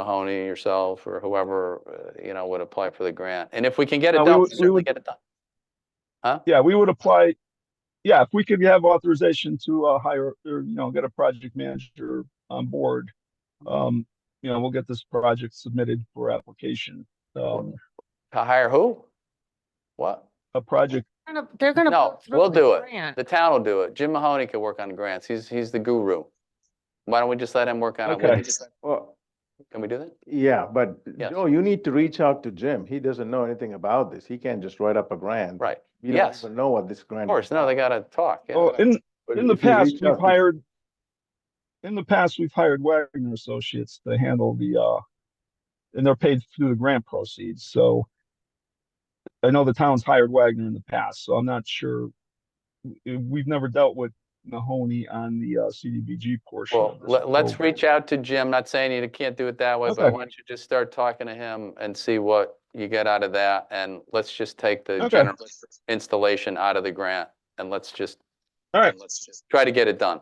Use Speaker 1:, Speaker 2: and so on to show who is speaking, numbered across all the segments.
Speaker 1: Mahoney, yourself, or whoever, uh, you know, would apply for the grant. And if we can get it
Speaker 2: Uh, we
Speaker 1: done,
Speaker 2: would-
Speaker 1: we'll
Speaker 2: we
Speaker 1: certainly
Speaker 2: would-
Speaker 1: get it done.
Speaker 2: Yeah, we would apply, yeah, if we could have authorization to uh hire, or, you know, get a project manager on board. Um, you know, we'll get this project submitted for application, um,
Speaker 1: To hire who? What?
Speaker 2: a project,
Speaker 3: gonna- They're gonna.
Speaker 1: No,
Speaker 3: put through
Speaker 1: we'll
Speaker 3: the
Speaker 1: do it.
Speaker 3: grant.
Speaker 1: The town will do it. Jim Mahoney can work on grants. He's, he's the guru. Why don't we just let him work on it? We
Speaker 2: Okay.
Speaker 1: can-
Speaker 4: Well,
Speaker 1: Can we do that?
Speaker 4: yeah, but
Speaker 1: Yes.
Speaker 4: Joe, you need to reach out to Jim. He doesn't know anything about this. He can't just write up a grant.
Speaker 1: Right.
Speaker 4: We don't
Speaker 1: yes.
Speaker 4: even know what this grant.
Speaker 1: Of
Speaker 4: is
Speaker 1: course, no, they gotta talk. yeah.
Speaker 2: uh, oh, in,
Speaker 4: But
Speaker 2: in the
Speaker 4: if you
Speaker 2: past,
Speaker 4: reach out
Speaker 2: we've
Speaker 4: to-
Speaker 2: hired, in the past, we've hired Wagner Associates to handle the, uh, and they're paid through the grant proceeds, so I know the town's hired Wagner in the past, so I'm not sure. We- We've never dealt with Mahoney on the, uh, CDBG portion.
Speaker 1: Well,
Speaker 2: of this
Speaker 1: let, let's
Speaker 2: program.
Speaker 1: reach out to Jim, not saying you can't do it that way, but
Speaker 2: Okay.
Speaker 1: why don't you just start talking to him and see what you get out of that? And let's just take the
Speaker 2: Okay.
Speaker 1: general installation out of the grant and let's just.
Speaker 2: All right.
Speaker 1: and Let's just try to get it done.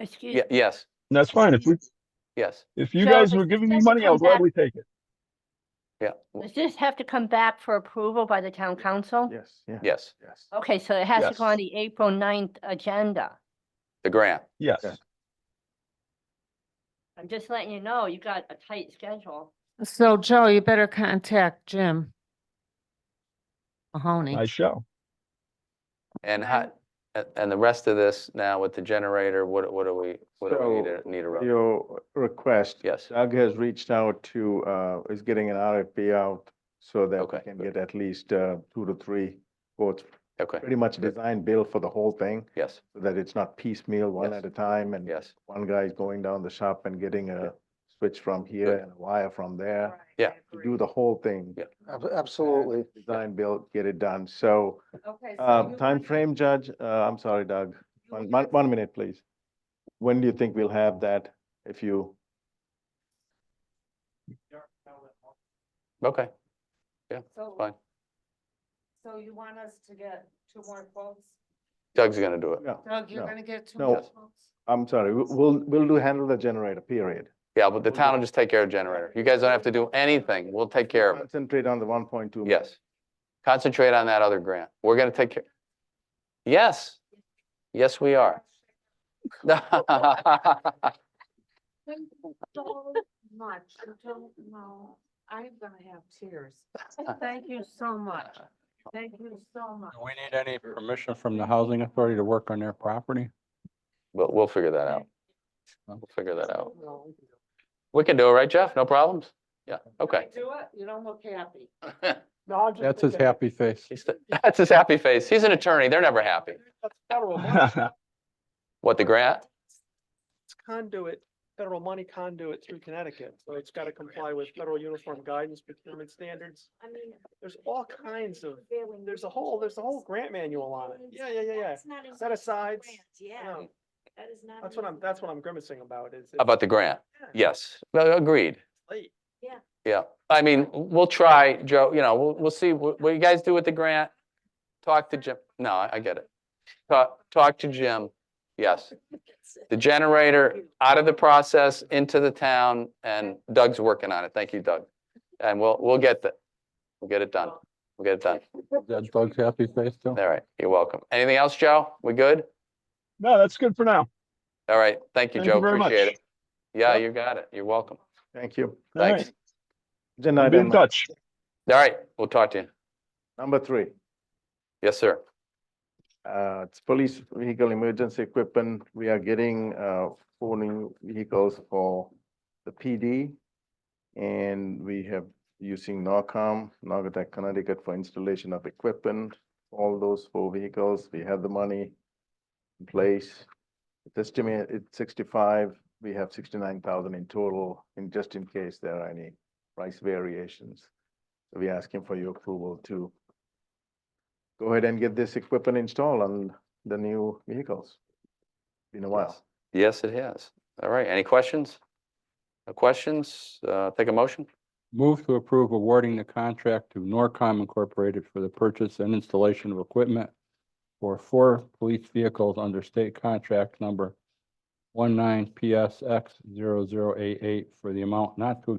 Speaker 3: Excuse
Speaker 1: Ye- yes,
Speaker 2: And that's fine. If we,
Speaker 1: yes,
Speaker 2: if you
Speaker 3: So
Speaker 2: guys
Speaker 3: if
Speaker 2: were
Speaker 3: it
Speaker 2: giving me
Speaker 3: doesn't
Speaker 2: money, I'll
Speaker 3: come back-
Speaker 2: gladly take it.
Speaker 1: yeah, w-
Speaker 3: Does this have to come back for approval by the town council?
Speaker 4: Yes, yeah,
Speaker 1: yes,
Speaker 4: yes.
Speaker 3: Okay, so it has to go
Speaker 2: Yes.
Speaker 3: on the April 9th agenda.
Speaker 1: the grant.
Speaker 2: Yes.
Speaker 4: Okay.
Speaker 3: I'm just letting you know, you got a tight schedule.
Speaker 5: So Joe, you better contact Jim Mahoney.
Speaker 2: I shall.
Speaker 1: And how, a- and the rest of this now with the generator, what, what do we, what do we need to, need to run?
Speaker 4: Your request,
Speaker 1: Yes,
Speaker 4: Doug has reached out to, uh, is getting an RFP out so that we
Speaker 1: Okay,
Speaker 4: can
Speaker 1: good.
Speaker 4: get at least, uh, two to three quotes,
Speaker 1: okay,
Speaker 4: pretty much
Speaker 1: good.
Speaker 4: design build for the whole thing,
Speaker 1: yes,
Speaker 4: so that it's not piecemeal, one
Speaker 1: Yes.
Speaker 4: at a time, and
Speaker 1: yes,
Speaker 4: one guy is going down the shop and getting
Speaker 1: Yeah.
Speaker 4: a switch from here
Speaker 1: Good.
Speaker 4: and a wire from there,
Speaker 1: Yeah.
Speaker 4: to do the whole thing.
Speaker 1: Yeah.
Speaker 4: Absolutely. Design, build, get it done. So,
Speaker 3: Okay.
Speaker 4: uh, frame, Judge, uh, I'm sorry, Doug, one, one, one minute, please. When do you think we'll have that, if you?
Speaker 1: okay.
Speaker 6: So,
Speaker 1: fine.
Speaker 6: so you want us to get two more quotes?
Speaker 1: Doug's gonna do it.
Speaker 4: No,
Speaker 5: Doug,
Speaker 4: No.
Speaker 5: you're gonna get two
Speaker 4: No.
Speaker 5: more
Speaker 4: Yes.
Speaker 5: votes?
Speaker 4: I'm sorry, we- we'll, we'll do handle the generator, period.
Speaker 1: Yeah, but the town will just take care of generator. You guys don't have to do anything. We'll take care of it.
Speaker 4: Concentrate on the one point two.
Speaker 1: Yes. Concentrate on that other grant. We're gonna take care. Yes. Yes, we are.
Speaker 6: So much, I don't know, I'm gonna have tears. Thank you so much, thank you so much.
Speaker 7: Do we need any permission from the housing authority to work on their property?
Speaker 1: But we'll figure that out. We'll figure that out. We can do it, right, Jeff? No problems? Yeah,
Speaker 6: Can I
Speaker 1: okay.
Speaker 6: Do it, you don't look happy.
Speaker 7: That's his happy face.
Speaker 1: He's the- That's his happy face. He's an attorney. They're never happy. What, the grant?
Speaker 8: It's conduit, federal money conduit through Connecticut, so it's gotta comply with federal uniform guidance procurement standards.
Speaker 6: I mean.
Speaker 8: There's all kinds of,
Speaker 6: prevailing
Speaker 8: there's a whole, there's a whole grant manual on it. Yeah, yeah, yeah, yeah.
Speaker 6: That's not in
Speaker 8: Set
Speaker 6: the
Speaker 8: aside,
Speaker 6: grant, Yeah.
Speaker 8: know.
Speaker 6: That is not.
Speaker 8: that's
Speaker 6: in
Speaker 8: what
Speaker 6: the
Speaker 8: I'm, that's what
Speaker 6: grant.
Speaker 8: I'm grimacing about is. it's
Speaker 1: About the grant? Yes, No, agreed.
Speaker 8: late.
Speaker 1: Yeah, I mean, we'll try, Joe, you know, we'll, we'll see what, what you guys do with the grant. Talk to Jim, no, I, I get it. Talk, talk to Jim, yes.
Speaker 6: That's it.
Speaker 1: The generator out of the process into the town and Doug's working on it. Thank you, Doug. And we'll, we'll get the, we'll get it done. We'll get it done.
Speaker 7: That's Doug's happy face too.
Speaker 1: All right, you're welcome. Anything else, Joe? We good?
Speaker 2: No, that's good for now.
Speaker 1: All right, thank you,
Speaker 2: Thank you
Speaker 1: Joe.
Speaker 2: very
Speaker 1: Appreciate
Speaker 2: much.
Speaker 1: it. Yeah,
Speaker 2: Yep.
Speaker 1: you got it. You're welcome.
Speaker 4: Thank you.
Speaker 2: All right.
Speaker 1: Thanks.
Speaker 4: Agenda
Speaker 2: Be in
Speaker 4: item
Speaker 2: touch.
Speaker 1: All right, we'll talk to you.
Speaker 4: Number three.
Speaker 1: Yes, sir.
Speaker 4: Uh, it's police vehicle emergency equipment. We are getting, uh, four new vehicles for the PD. And we have using NOCOM, Naugatuck, Connecticut for installation of equipment. All those four vehicles, we have the money in place. It's estimated, it's sixty-five. We have sixty-nine thousand in total, in just in case there are any price variations. So We're asking for your approval to go ahead and get this equipment installed on the new vehicles. Been a while.
Speaker 1: Yes, it has. All right, any questions? No questions? Uh, take a motion?
Speaker 7: Move to approve awarding the contract to Norcom Incorporated for the purchase and installation of equipment for four police vehicles under state contract number 19 PSX 88 for the amount not to